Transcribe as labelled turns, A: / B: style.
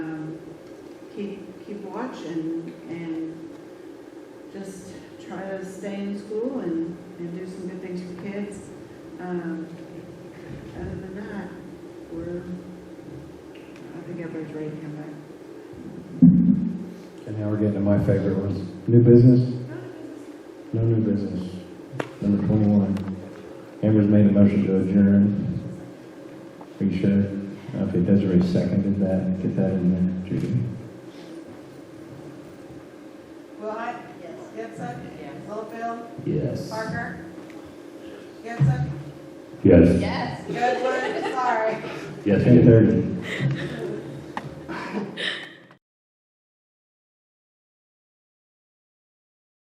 A: um, couch and, and just try to stay in school and, and do some good things for kids. Um, Other than that, we're, I think everybody's ready to come back.
B: And now we're getting to my favorite ones. New business? No new business. Number twenty-one. Amber's made a motion to adjourn. Are you sure? Okay, Desiree seconded that. Get that in there, Judy.
C: Will I? Yes. Gibson? Yes. Littlefield?
B: Yes.
C: Parker? Gibson?
B: Yes.
C: Yes. Goodwin? Sorry.
B: Yes. Ten thirty.